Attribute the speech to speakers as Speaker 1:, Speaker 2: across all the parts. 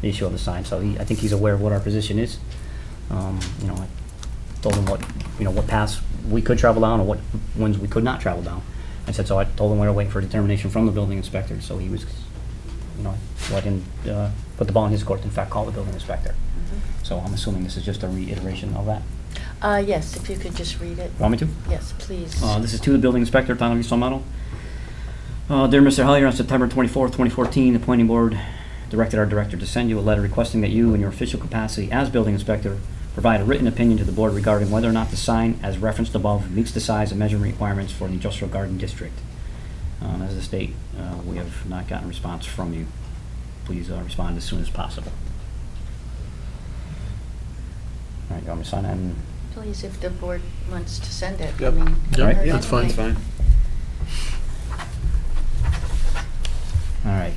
Speaker 1: the issue of the sign, so he, I think he's aware of what our position is. Um, You know, I told him what, you know, what paths we could travel down and what ones we could not travel down. I said, so I told him we were waiting for determination from the building inspector, so he was, you know, let him uh, put the ball in his court, in fact, call the building inspector. So I'm assuming this is just a reiteration of that.
Speaker 2: Uh, yes, if you could just read it.
Speaker 1: Want me to?
Speaker 2: Yes, please.
Speaker 1: Uh, This is to the building inspector, Town of East Long Meadow. Uh, Dear Mr. Hellier, on September 24, 2014, the planning board directed our director to send you a letter requesting that you, in your official capacity as building inspector, provide a written opinion to the board regarding whether or not the sign, as referenced above, meets the size and measurement requirements for the industrial garden district. Um, As a state, uh, we have not gotten a response from you. Please uh, respond as soon as possible. All right, you want me to sign that? and-
Speaker 2: Please, if the board wants to send it. I
Speaker 3: Yep.
Speaker 2: mean,
Speaker 1: Yep,
Speaker 2: or-
Speaker 1: yeah.
Speaker 3: That's fine.
Speaker 2: Okay.
Speaker 1: All right,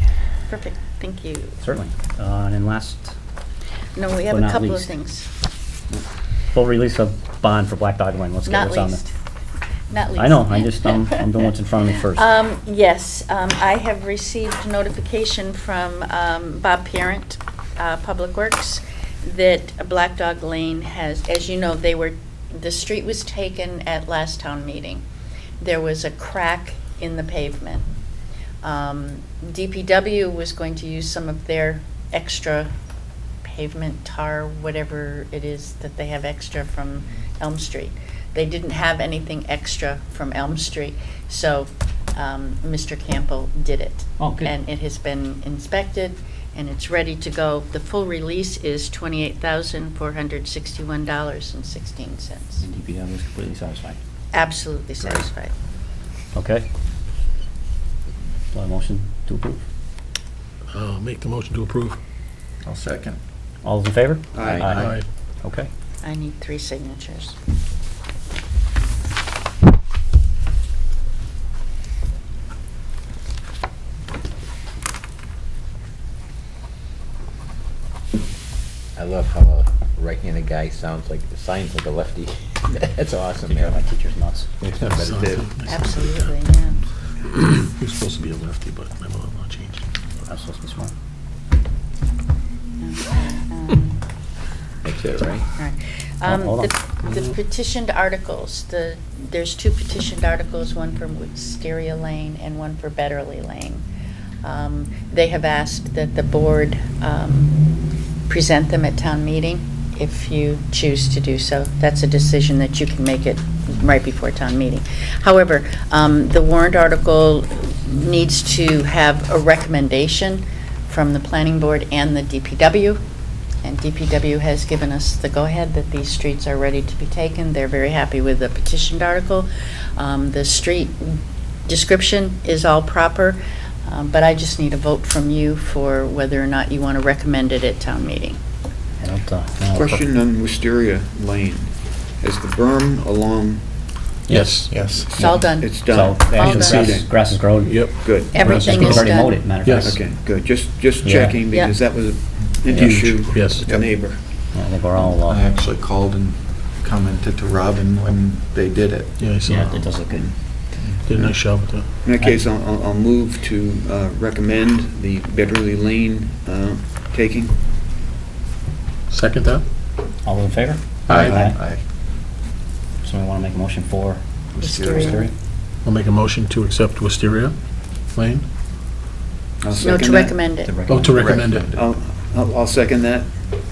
Speaker 2: Perfect, thank you.
Speaker 1: certainly. Uh, And then last
Speaker 2: No, we
Speaker 1: But
Speaker 2: have a
Speaker 1: not
Speaker 2: couple
Speaker 1: least.
Speaker 2: of things.
Speaker 1: Full release of bond for Black Dog Lane, let's get
Speaker 2: Not
Speaker 1: what's on
Speaker 2: least.
Speaker 1: the.
Speaker 2: Not least.
Speaker 1: I know, I just, um, I'm doing what's in front of me first.
Speaker 2: Um, yes, um, I have received notification from, um, Bob Parent, uh, Public Works, that Black Dog Lane has, as you know, they were, the street was taken at last town meeting. There was a crack in the pavement. Um, DPW was going to use some of their extra pavement, tar, whatever it is that they have extra from Elm Street. They didn't have anything extra from Elm Street, so um, Mr. Campbell did it.
Speaker 1: Oh, good.
Speaker 2: And it has been inspected, and it's ready to go. The full release is $28,461.16.
Speaker 1: DPW is completely satisfied.
Speaker 2: Absolutely
Speaker 1: Great.
Speaker 2: satisfied.
Speaker 1: Okay. Do I motion to approve?
Speaker 3: I'll make the motion to approve.
Speaker 4: I'll second.
Speaker 1: All those in favor?
Speaker 4: Aye.
Speaker 3: Aye.
Speaker 1: Okay.
Speaker 2: I need three signatures.
Speaker 5: I love how a right-handed guy sounds like, signs like a lefty. That's awesome,
Speaker 1: Teacher, my
Speaker 5: man.
Speaker 1: teacher's nuts.
Speaker 5: But it did.
Speaker 2: Absolutely, yeah.
Speaker 3: He was supposed to be a lefty, but my mom will change.
Speaker 1: I'm supposed to be smart.
Speaker 2: Okay, um,
Speaker 5: That's it, right?
Speaker 2: Alright. Um,
Speaker 1: Hold on.
Speaker 2: The the petitioned articles, the, there's two petitioned articles, one for Wisteria Lane and one for Betterly Lane. Um, They have asked that the board um, present them at town meeting if you choose to do so. That's a decision that you can make it right before town meeting. However, um, the warrant article needs to have a recommendation from the planning board and the DPW. And DPW has given us the go-ahead that these streets are ready to be taken. They're very happy with the petitioned article. Um, The street description is all proper, um, but I just need a vote from you for whether or not you want to recommend it at town meeting.
Speaker 1: I don't, uh, no.
Speaker 4: Question on Wisteria Lane. Is the berm along?
Speaker 3: Yes. Yes.
Speaker 2: It's all done.
Speaker 4: It's
Speaker 1: So,
Speaker 4: done?
Speaker 1: actually,
Speaker 2: All done.
Speaker 1: grass, grass is grown.
Speaker 3: Yep.
Speaker 4: Good.
Speaker 2: Everything
Speaker 1: We've
Speaker 2: is
Speaker 1: Already mowed
Speaker 2: done.
Speaker 1: it, matter of fact.
Speaker 3: Yes.
Speaker 4: Okay, good. Just, just
Speaker 1: Yeah.
Speaker 4: checking
Speaker 2: Yeah.
Speaker 4: because that was an
Speaker 1: Yeah.
Speaker 4: issue
Speaker 3: Yes.
Speaker 4: with the neighbor.
Speaker 1: Yeah, I think we're all,
Speaker 6: I
Speaker 1: uh,
Speaker 6: actually called and commented to Robin when they did it.
Speaker 3: Yeah, I
Speaker 1: yeah,
Speaker 3: saw.
Speaker 1: it does look good.
Speaker 3: Did a nice job with that.
Speaker 4: In that case, I'll- I'll, I'll move to uh, recommend the Bitterly Lane uh, taking.
Speaker 3: Second that?
Speaker 1: All those in favor?
Speaker 6: Aye.
Speaker 1: Somebody want to make a motion for
Speaker 2: Wisteria.
Speaker 6: Wisteria.
Speaker 1: Wisteria?
Speaker 3: I'll make a motion to accept Wisteria Lane.
Speaker 4: I'll
Speaker 2: No,
Speaker 4: second
Speaker 2: to
Speaker 4: that.
Speaker 2: recommend it.
Speaker 1: To recommend.
Speaker 3: Oh, to recommend it.
Speaker 4: I'll, I'll I'll second that.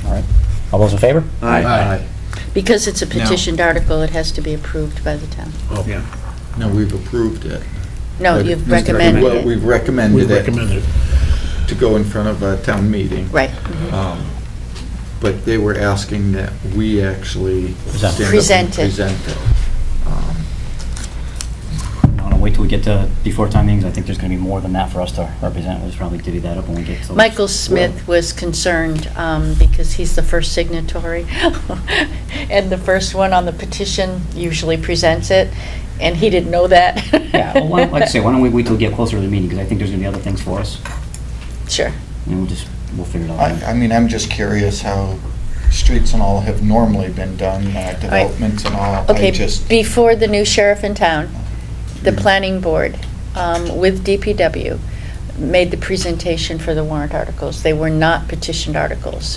Speaker 1: All right. All those in favor?
Speaker 3: Aye.
Speaker 2: Because it's a petitioned article, it has to be approved by the town.
Speaker 3: Oh,
Speaker 4: Yeah.
Speaker 6: No, we've approved it.
Speaker 2: No,
Speaker 6: But it-
Speaker 2: you've
Speaker 6: Well,
Speaker 2: recommended it.
Speaker 6: We've
Speaker 3: We
Speaker 6: recommended it
Speaker 3: recommend it.
Speaker 6: to go in front of a town meeting.
Speaker 2: Right.
Speaker 6: Um, But they were asking that we actually
Speaker 1: Present.
Speaker 6: stand up and
Speaker 2: Present it.
Speaker 6: Present it. Um,
Speaker 1: No, no, wait till we get to, before time meetings, I think there's gonna be more than that for us to represent, we'll just probably divvy that up when we get to.
Speaker 2: Michael Smith was concerned um, because he's the first signatory, and the first one on the petition usually presents it, and he didn't know that.
Speaker 1: Yeah, well, why don't- like I say, why don't we wait till we get closer to the meeting, because I think there's gonna be other things for us,
Speaker 2: Sure.
Speaker 1: and we'll just, we'll figure it out.
Speaker 7: I, I mean, I'm just curious how streets and all have normally been done, uh, developments and all. I
Speaker 2: Okay,
Speaker 7: just,
Speaker 2: before the new sheriff in town, the planning board um, with DPW made the presentation for the warrant articles. They were not petitioned articles.